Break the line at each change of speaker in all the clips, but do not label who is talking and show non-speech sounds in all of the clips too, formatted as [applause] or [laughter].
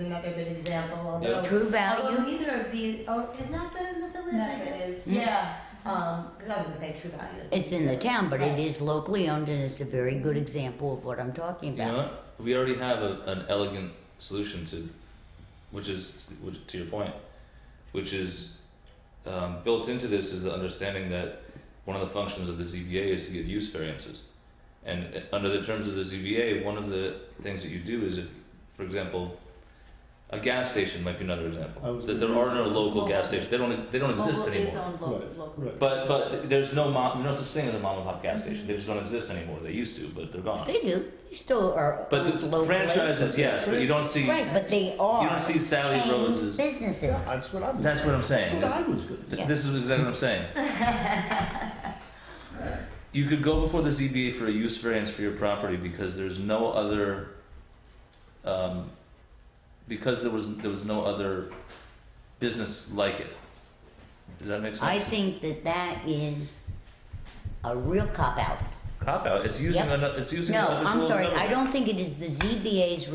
another good example.
Yeah.
Although,
True
although
value.
neither of these, oh, is not that in the village? I
No,
guess?
it is.
Yeah, because I was going to say true value. isn't
It's in the town, but it
Right.
is locally owned and it's a very good example of what I'm talking
You know
about.
what? We already have a, an elegant solution to, which is which, to your point, which is um, built into this is the understanding that one of the functions of the ZBA is to get use variances, and uh, under the terms of the ZBA, one of the things that you do is if, for example, a gas station might be another
I
example
was
that there
gonna
are
use
no
that.
local gas stations. They don't they don't exist
Mobile
anymore.
is owned lo-
Right,
locally.
right.
But but there's no mom, no such thing as a mom and pop gas station. They just don't exist anymore. They used to, but they're gone.
They do. They still are.
But
owned
the
locally.
franchises, yes, but you don't see.
Right, but they are.
don't see Sally
chain
Rose's-
Businesses.
Yeah, that's what I was.
That's what I'm saying.
That's what I was gonna say.
Th- This is exactly what I'm saying.
[laughs]
You could go before the ZBA for a use variance for your property because there's no other, um, because there was, there was no other business like it. Does that make sense?
I think that that is a real cop out.
Cop out, it's using
Yep.
another, it's using
No,
another tool.
I'm
of
sorry.
another
I
one.
don't think it is the ZBA's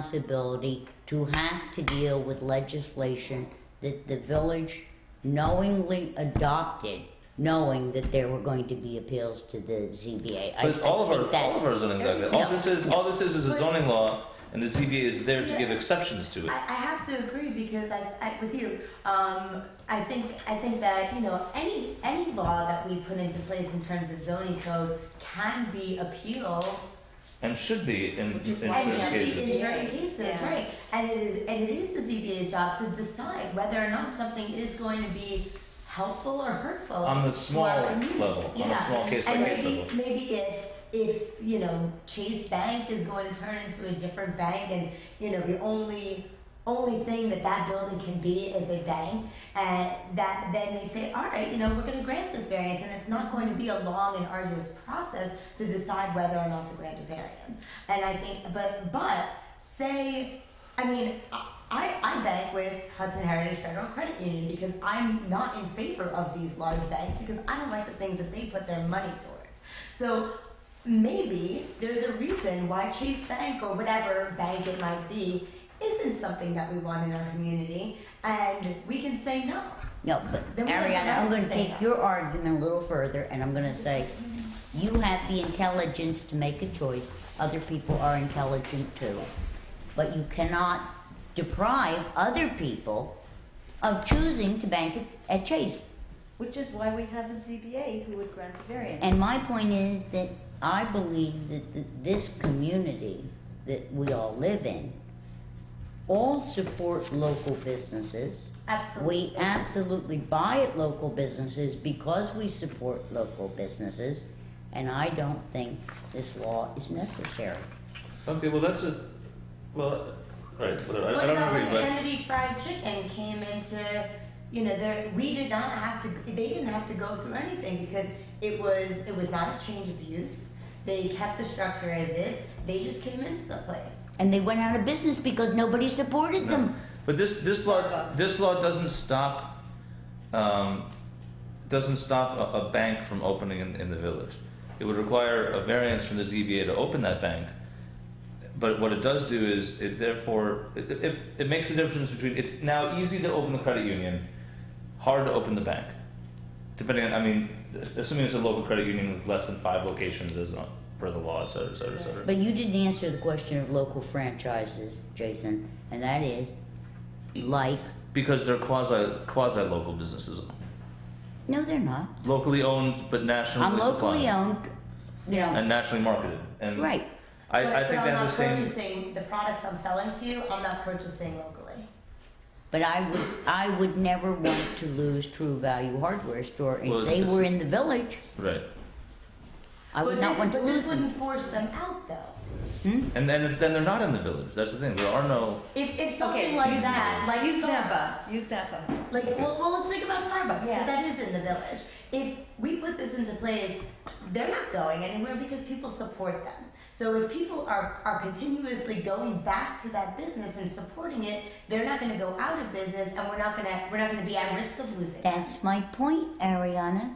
responsibility to have to deal with legislation that the village knowingly adopted, knowing that there were going to be appeals to the ZBA. I-
But
I
all of
think
our,
that-
all of our zoning, like that. all
No.
this is, all this is is a
But-
zoning law and the ZBA is there to
Yeah.
give exceptions to it.
I, I have to agree because I, I with you, um, I think I think that you know any any law that we put into place in terms of zoning code can be appealed
And should be in, in
Which is
certain
why
and
we
should
have
cases.
be in certain cases,
Yeah.
right? And it is and it is the ZBA's job to decide whether or not something is going to be helpful or hurtful
On the
to our
small
community.
level, on a
Yeah.
small case by
And
case
maybe,
level.
maybe if, if, you know, Chase Bank is going to turn into a different bank and, you know, the only, only thing that that building can be is a bank, and that, then they say, all right, you know, we're gonna grant this variance, and it's not going to be a long and arduous process to decide whether or not to grant a variance. And I think, but, but, say, I mean, I, I bank with Hudson Heritage Federal Credit Union because I'm not in favor of these large banks because I don't like the things that they put their money towards. So maybe there's a reason why Chase Bank or whatever bank it might be isn't something that we want in our community and we can say no.
No, but
Then we have the
Ariana,
right
I'm going
to
to
say
take
that.
your argument a little further, and I'm going to say, you have the intelligence to make a choice. Other people are intelligent too, but you cannot deprive other people of choosing to bank at- at Chase.
Which is why we have the ZBA who would grant the variance.
And my point is that I believe that th- this community that we all live in all support local businesses.
Absolutely.
We absolutely buy at local businesses because we support local businesses, and I don't think this law is necessary.
Okay, well, that's a, well, alright, whatever, I,
What
I don't
about
agree,
when
but,
Kennedy Fried Chicken came into, you know, there, we did not have to, they didn't have to go through anything because it was, it was not a change of use. They kept the structure as is, they just came into the place.
And they went out of business because nobody supported
no.
them.
But this, this law, this law doesn't stop, um, doesn't stop a, a bank from opening in, in the village. It would require a variance from the ZBA to open that bank, but what it does do is, it therefore, it, it, it makes a difference between, it's now easy to open the credit union, hard to open the bank. Depending on, I mean, assuming it's a local credit union with less than five locations, as on, per the law, et cetera, et cetera, et cetera.
But you didn't answer the question of local franchises, Jason, and that is like,
Because they're quasi quasi local businesses,
no, they're not.
locally owned but nationally
I'm locally
supplied
owned, you know,
and nationally marketed. And
right.
I,
but,
I
but
think
I'm
that
not
was saying
purchasing the products I'm selling to you. I'm not purchasing locally.
But I would, I would never want to lose True Value Hardware Store.
Well,
If
it's-
they
it's-
were in the village,
right,
I would
but
not
this,
want to
but this
lose them.
wouldn't force them out though.
and then it's then they're not in the village. That's the thing. There are no
If, if something
Okay.
like that, like
Use
Starbucks,
Napa. Use Napa.
Like, well, well, let's think about Starbucks because
Yeah.
that is in the village. If we put this into place, they're not going anywhere because people support them. So if people are, are continuously going back to that business and supporting it, they're not going to go out of business, and we're not going to we're not going to be at risk of losing.
That's my point, Ariana.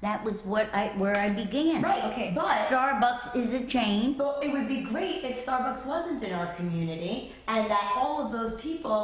That was what I where I began.
Right.
Okay.
But
Starbucks is a chain.
But it would be great if Starbucks wasn't in our community and that all of those people